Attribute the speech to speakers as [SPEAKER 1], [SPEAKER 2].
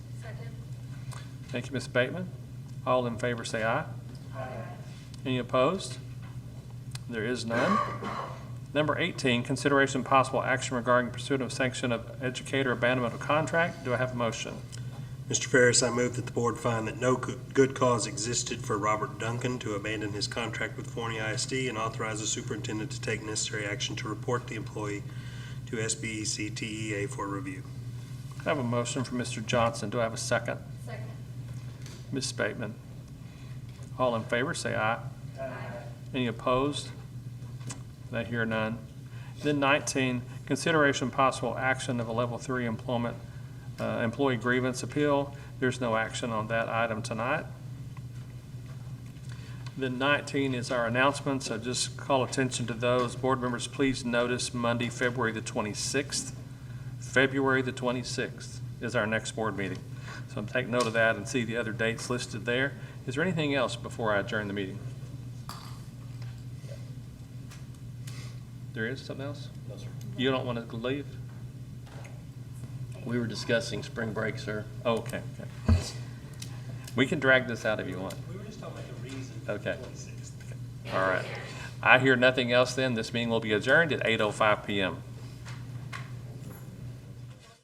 [SPEAKER 1] Thank you, Ms. Bateman. All in favor, say aye. Aye. Any opposed? There is none. Number 18, consideration and possible action regarding pursuit of sanction of educator abandonment of contract. Do I have a motion?
[SPEAKER 2] Mr. Ferris, I move that the board find that no co- good cause existed for Robert Duncan to abandon his contract with Forney ISD and authorize the superintendent to take necessary action to report the employee to E SBEC TEA for review.
[SPEAKER 1] I have a motion from Mr. Johnson. Do I have a second?
[SPEAKER 3] Second.
[SPEAKER 1] Ms. Bateman. All in favor, say aye. Any opposed? I hear none. Then 19, consideration possible action of a Level 3 employment, uh, employee grievance appeal. There's no action on that item tonight. Then 19 is our announcement, so just call attention to those. Board members, please notice Monday, February the 26th. February the 26th is our next board meeting. So take note of that and see the other dates listed there. Is there anything else before I adjourn the meeting? There is something else? No, sir. You don't want to leave?
[SPEAKER 4] We were discussing spring break, sir.
[SPEAKER 1] Oh, okay, okay. We can drag this out if you want.
[SPEAKER 2] We were just talking about the reason
[SPEAKER 1] Okay. oh All right. I hear nothing else then. This meeting will be adjourned at 8:05 PM.